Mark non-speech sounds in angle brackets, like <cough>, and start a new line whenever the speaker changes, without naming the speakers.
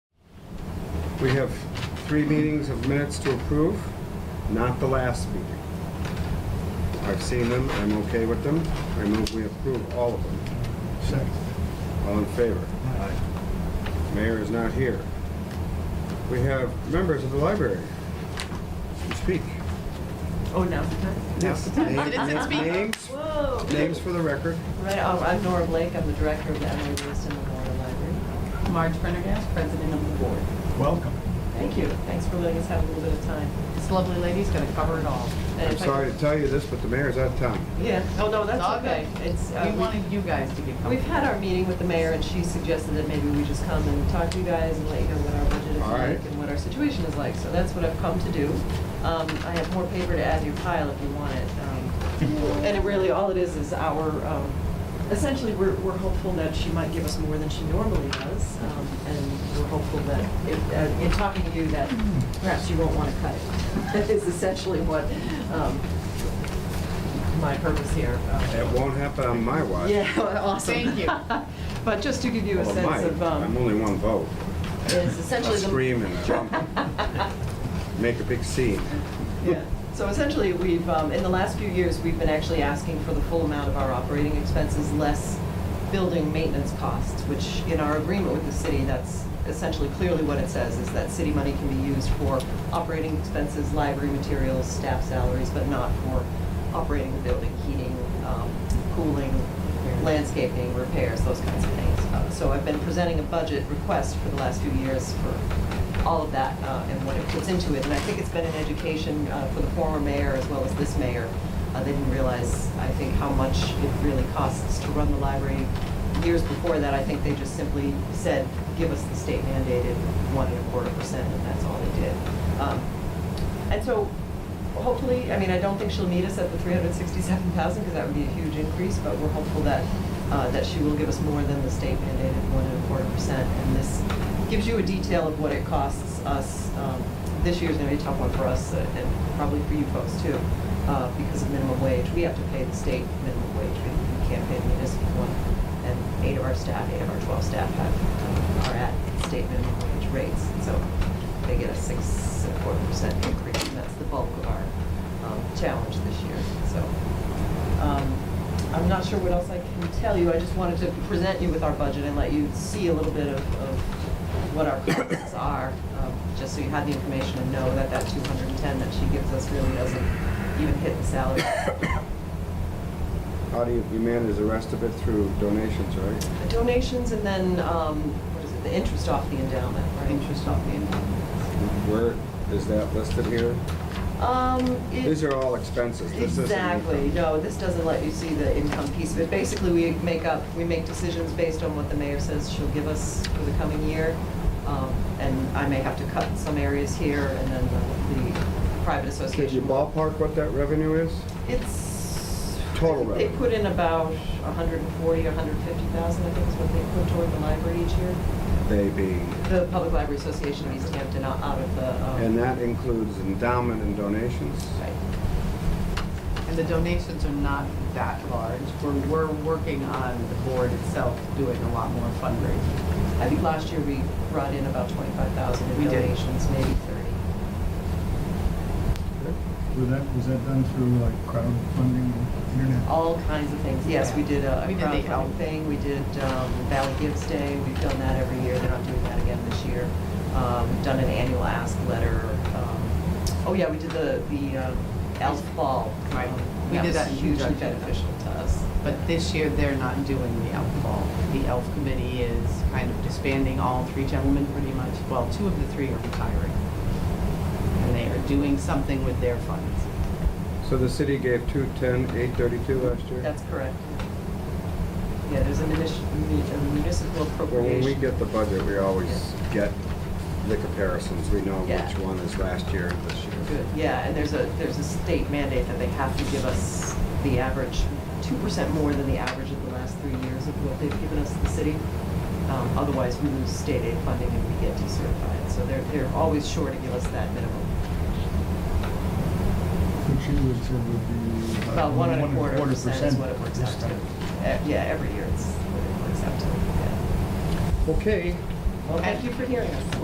We have three meetings of minutes to approve, not the last meeting. I've seen them, I'm okay with them, I move we approve all of them.
Second.
All in favor? Mayor is not here. We have members of the library to speak.
Oh, no.
Yes.
Citizens speak.
Names,
Whoa.
names for the record.
Right, oh, I'm Nora Blake, I'm the director of the Emily Wilson Memorial Library. Marge Prendergast, president of the board.
Welcome.
Thank you, thanks for letting us have a little bit of time. This lovely lady's gonna cover it all.
I'm sorry to tell you this, but the mayor's out of town.
Yeah, oh, no, that's
It's all
okay. It's, uh,
We wanted you guys to get
We've
comfortable.
had our meeting with the mayor, and she suggested that maybe we just come and talk to you guys and let you know what our budget is
All right.
like and what our situation is like. So that's what I've come to do. Um, I have more paper to add to your pile if you want it. Um, And it really, all it is, is our, um, essentially, we're, we're hopeful that she might give us more than she normally does. um, And we're hopeful that, if- uh, in talking to you, that perhaps you won't want to cut it. <laughs> That is essentially what um, my purpose here. um,
It won't happen on my watch.
yeah, <laughs> well, awesome.
Thank you.
But just to give you a
Well, it
sense
might.
of,
I'm
um,
only one vote.
it's essentially
I'll
the.
scream and I'll make a big scene.
<laughs> Yeah. So essentially, we've, um, in the last few years, we've been actually asking for the full amount of our operating expenses, less building maintenance costs, which in our agreement with the city, that's essentially clearly what it says, is that city money can be used for operating expenses, library materials, staff salaries, but not for operating the building, heating, um, cooling, landscaping, repairs, those kinds of things. Uh, So I've been presenting a budget request for the last few years for all of that uh, and what it puts into it. And I think it's been an education uh, for the former mayor as well as this mayor. Uh, They didn't realize, I think, how much it really costs to run the library. Years before that, I think they just simply said, give us the state mandated one and a quarter percent, and that's all they did. Um, And so hopefully, I mean, I don't think she'll meet us at the 367,000 because that would be a huge increase, but we're hopeful that, uh, that she will give us more than the state mandated one and a quarter percent. And this gives you a detail of what it costs us. Um, This year's going to be a tough one for us uh, and probably for you folks too, uh, because of minimum wage. We have to pay the state minimum wage. We we can't pay the municipal one. And eight of our staff, eight of our 12 staff have, uh, are at state minimum wage rates. So they get a six and a quarter percent increase, and that's the bulk of our um, challenge this year, so. um, I'm not sure what else I can tell you, I just wanted to present you with our budget and let you see a little bit of, of what our costs are, um, just so you had the information and know that that two hundred and ten that she gives us really doesn't even hit the salary.
How do you, you manage the rest of it through donations, right?
The Donations and then, um, what is it, the interest off the endowment, right?
Interest off the end.
Where is that listed here?
Um, it-
These are all expenses. This isn't
Exactly,
income.
no, this doesn't let you see the income piece of it. Basically, we make up, we make decisions based on what the mayor says she'll give us for the coming year. Um, And I may have to cut some areas here, and then the- the private association.
Could you
will-
ballpark what that revenue is?
It's.
Total
They
revenue.
put in about 140, 150,000, I think is what they put toward the library each year.
They being,
The Public Library Association of East Hampton out out of the. um,
and that includes endowment and donations.
Right.
And the donations are not that large. We're, we're working on the board itself doing a lot more fundraising.
I think last year we brought in about 25,000 in
We did.
donations, maybe 30.
Was that, was that done through like crowdfunding, internet?
All kinds of things. Yes, we did a a
We did the
crowdfunding
elf.
thing, we did um, Valley Gives Day, we've done that every year, they're not doing that again this year. Um, We've done an annual ask letter. um, Oh, yeah, we did the, the uh, elf ball.
Right.
Um,
We did
was
that in
Hugely
conjunction.
beneficial to us.
But this year, they're not doing the elf ball. The elf committee is kind of disbanding all three gentlemen pretty much. Well, two of the three are retiring. And they are doing something with their funds.
So the city gave two ten, eight thirty-two last year?
That's correct. Yeah, there's a munis- a municipal
Well, when we
appropriation.
get the budget, we always get the comparisons. We know
Yeah.
which one is last year and this year.
Good, yeah, and there's a, there's a state mandate that they have to give us the average, two percent more than the average of the last three years of what they've given us, the city. Um, Otherwise, we lose state aid funding and we get decertified, so they're, they're always sure to give us that minimum.
Which you would say would be.
About Uh, one and a quarter percent is what it works out
this
to.
time.
Uh, Yeah, every year it's what it works out to, yeah.
Okay,
Well, thank you for hearing us.